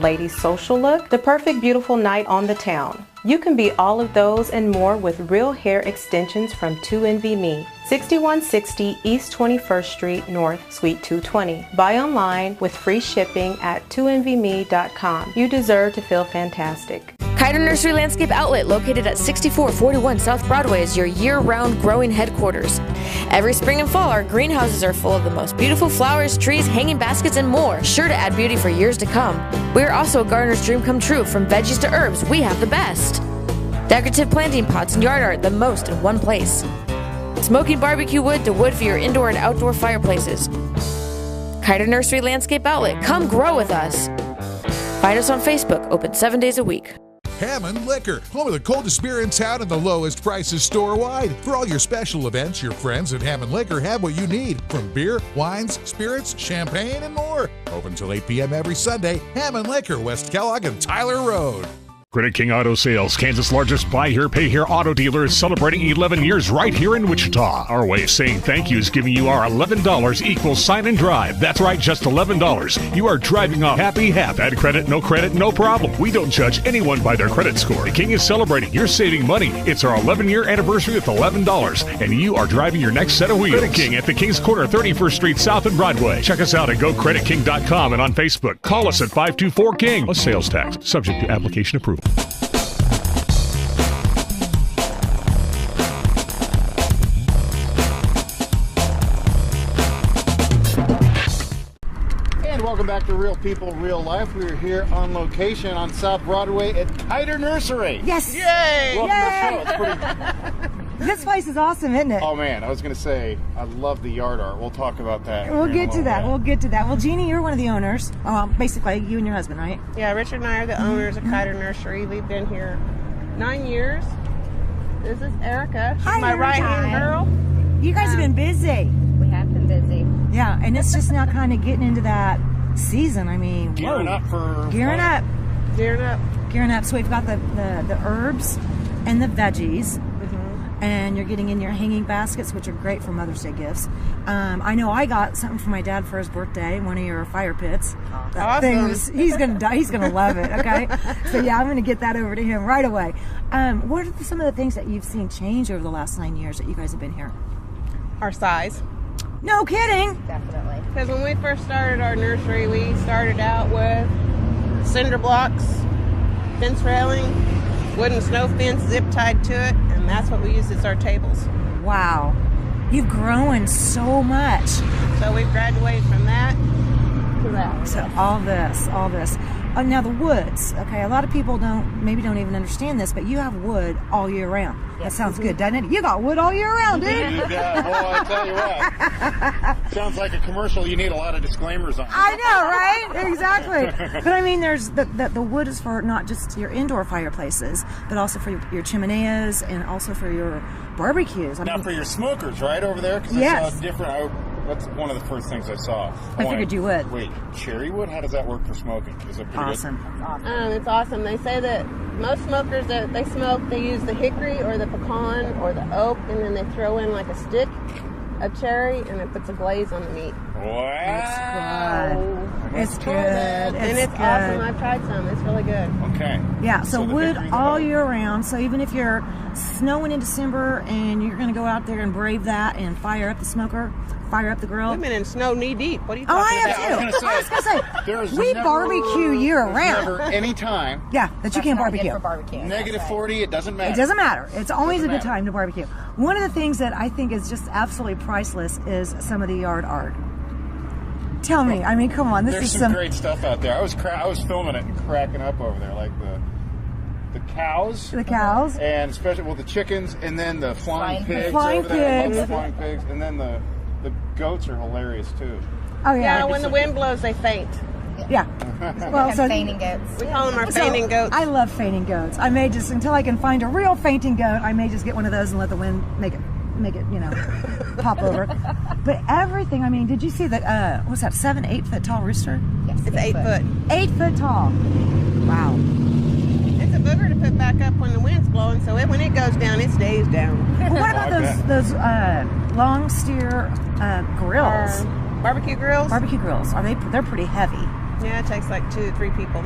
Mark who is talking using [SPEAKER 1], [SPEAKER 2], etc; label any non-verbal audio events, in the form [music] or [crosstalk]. [SPEAKER 1] lady social look, the perfect beautiful night on the town. You can be all of those and more with real hair extensions from 2NVMe. 6160 East 21st Street North, Suite 220. Buy online with free shipping at 2NVMe.com. You deserve to feel fantastic.
[SPEAKER 2] Kiter Nursery Landscape Outlet, located at 6441 South Broadway, is your year round growing headquarters. Every spring and fall, our greenhouses are full of the most beautiful flowers, trees, hanging baskets, and more, sure to add beauty for years to come. We are also a gardener's dream come true. From veggies to herbs, we have the best. Decorative planting pots and yard art, the most in one place. Smoking barbecue wood to wood for your indoor and outdoor fireplaces. Kiter Nursery Landscape Outlet, come grow with us. Find us on Facebook, open seven days a week.
[SPEAKER 3] Hammond Liquor, home of the coldest beer in town and the lowest prices store wide. For all your special events, your friends at Hammond Liquor have what you need from beer, wines, spirits, champagne, and more. Open till 8 p.m. every Sunday. Hammond Liquor, West Kellogg and Tyler Road.
[SPEAKER 4] Credit King Auto Sales, Kansas' largest buy here, pay here auto dealer, is celebrating 11 years right here in Wichita. Our way of saying thank you is giving you our $11 equals sign and drive. That's right, just $11. You are driving a happy half. Add credit, no credit, no problem. We don't judge anyone by their credit score. The King is celebrating. You're saving money. It's our 11 year anniversary with $11, and you are driving your next set of wheels. Credit King at the King's Corner, 31st Street South and Broadway. Check us out at gocreditking.com and on Facebook. Call us at 524 King. A sales tax, subject to application approval.
[SPEAKER 5] And welcome back to Real People, Real Life. We're here on location on South Broadway at Kiter Nursery.
[SPEAKER 6] Yes.
[SPEAKER 5] Yay! Welcome to the show. It's pretty-
[SPEAKER 6] This place is awesome, isn't it?
[SPEAKER 5] oh man, I was gonna say I love the yard art. We'll talk about that.
[SPEAKER 6] We'll
[SPEAKER 5] here in a
[SPEAKER 6] get to
[SPEAKER 5] little
[SPEAKER 6] that.
[SPEAKER 5] bit.
[SPEAKER 6] We'll get to that. Well, Jeannie, you're one of the owners. Um, basically, you and your husband, right?
[SPEAKER 7] Yeah, Richard and I are the owners of Kiter Nursery. We've been here nine years. This is Erica. She's
[SPEAKER 6] Hi,
[SPEAKER 7] my
[SPEAKER 6] Erica.
[SPEAKER 7] right hand girl.
[SPEAKER 6] You guys have been busy.
[SPEAKER 8] We have been busy.
[SPEAKER 6] Yeah, and it's just now kind of getting into that season. I mean,
[SPEAKER 5] gearing up for
[SPEAKER 6] gearing up,
[SPEAKER 7] Gearing up.
[SPEAKER 6] gearing up. So we've got the the, the herbs and the veggies. And you're getting in your hanging baskets, which are great for Mother's Day gifts. Um, I know I got something for my dad for his birthday, one of your fire pits. That
[SPEAKER 7] Awesome.
[SPEAKER 6] thing was- he's gonna die. He's gonna love it. Okay, so yeah, I'm gonna get that over to him right away. Um, what are the, some of the things that you've seen change over the last nine years that you guys have been here?
[SPEAKER 7] Our size.
[SPEAKER 6] No kidding.
[SPEAKER 8] Definitely.
[SPEAKER 7] Because when we first started our nursery, we started out with cinder blocks, fence railing, wooden snow fence zip tied to it, and that's what we used as our tables.
[SPEAKER 6] Wow, you've grown so much.
[SPEAKER 7] So we've graduated from that to that.
[SPEAKER 6] So all this, all this. Oh, now the woods. Okay, a lot of people don't maybe don't even understand this, but you have wood all year round. That sounds good, doesn't it? You got wood all year round, dude.
[SPEAKER 5] Yeah, well, Oh, I tell you what.
[SPEAKER 6] [laughs]
[SPEAKER 5] Sounds like a commercial. You need a lot of disclaimers on.
[SPEAKER 6] I know, right?
[SPEAKER 5] [laughs]
[SPEAKER 6] Exactly. But I mean, there's the, the the wood is for not just your indoor fireplaces, but also for your, your chimeneas and also for your barbecues. I
[SPEAKER 5] Now
[SPEAKER 6] mean,
[SPEAKER 5] for your smokers, right over there, because I
[SPEAKER 6] Yes.
[SPEAKER 5] saw different. I, that's one of the first things I saw. Oh,
[SPEAKER 6] I figured you would.
[SPEAKER 5] Wait, cherry wood? How does that work for smoking? Is it pretty good?
[SPEAKER 6] awesome.
[SPEAKER 7] Um, it's awesome. They say that most smokers that they smoke, they use the hickory or the pecan or the oak, and then they throw in like a stick of cherry, and it puts a glaze on the meat.
[SPEAKER 5] Wow.
[SPEAKER 6] It's good.
[SPEAKER 7] and
[SPEAKER 6] It's
[SPEAKER 7] it's
[SPEAKER 6] good.
[SPEAKER 7] awesome. I've tried some. It's really good.
[SPEAKER 5] Okay.
[SPEAKER 6] Yeah, so,
[SPEAKER 5] So the
[SPEAKER 6] wood
[SPEAKER 5] hickory and the
[SPEAKER 6] all
[SPEAKER 5] oak.
[SPEAKER 6] year round. So even if you're snowing in December and you're going to go out there and brave that and fire up the smoker, fire up the grill.
[SPEAKER 7] I've been in snow knee deep. What are you
[SPEAKER 6] Oh, I
[SPEAKER 7] talking
[SPEAKER 6] am
[SPEAKER 5] Yeah, I
[SPEAKER 7] about?
[SPEAKER 5] was
[SPEAKER 6] too.
[SPEAKER 5] gonna
[SPEAKER 6] I was
[SPEAKER 5] say,
[SPEAKER 6] going to say,
[SPEAKER 5] There is
[SPEAKER 6] we
[SPEAKER 5] never-
[SPEAKER 6] barbecue year
[SPEAKER 5] there's
[SPEAKER 6] round.
[SPEAKER 5] Never any time.
[SPEAKER 6] Yeah, that you can't
[SPEAKER 8] Not good
[SPEAKER 6] barbecue.
[SPEAKER 8] For barbecue.
[SPEAKER 5] Negative
[SPEAKER 8] That's right.
[SPEAKER 5] 40, it doesn't matter.
[SPEAKER 6] It doesn't matter. It's always
[SPEAKER 5] Doesn't
[SPEAKER 6] a good
[SPEAKER 5] matter.
[SPEAKER 6] time to barbecue. One of the things that I think is just absolutely priceless is some of the yard art. Tell me, I mean, come on, this
[SPEAKER 5] There's
[SPEAKER 6] is
[SPEAKER 5] some, great stuff out there. I was cra- I was filming it and cracking up over there, like the the cows
[SPEAKER 6] the cows.
[SPEAKER 5] and especially well the chickens, and then the flying
[SPEAKER 8] Flying
[SPEAKER 5] pigs.
[SPEAKER 8] pigs.
[SPEAKER 6] Flying
[SPEAKER 5] over there. I love the
[SPEAKER 6] pigs.
[SPEAKER 5] flying pigs, and then the the goats are hilarious too.
[SPEAKER 6] Oh yeah,
[SPEAKER 7] Yeah, when the wind blows, they faint.
[SPEAKER 5] [laughs]
[SPEAKER 6] yeah. Well,
[SPEAKER 8] And
[SPEAKER 6] so
[SPEAKER 8] feigning goats.
[SPEAKER 7] We call them our
[SPEAKER 6] So,
[SPEAKER 7] fainting goats.
[SPEAKER 6] I love fainting goats. I may just until I can find a real fainting goat, I may just get one of those and let the wind make it make it, you know, pop over. But everything, I mean, did you see that uh what's that, seven, eight foot tall rooster?
[SPEAKER 8] Yes,
[SPEAKER 7] It's eight foot.
[SPEAKER 6] Eight foot tall. Wow.
[SPEAKER 7] It's a booger to put back up when the wind's blowing, so it, when it goes down, it stays down.
[SPEAKER 6] Well, what about those those uh long steer uh grills?
[SPEAKER 7] Our barbecue grills?
[SPEAKER 6] Barbecue grills. Are they they're pretty heavy.
[SPEAKER 7] yeah, it takes like two, three people.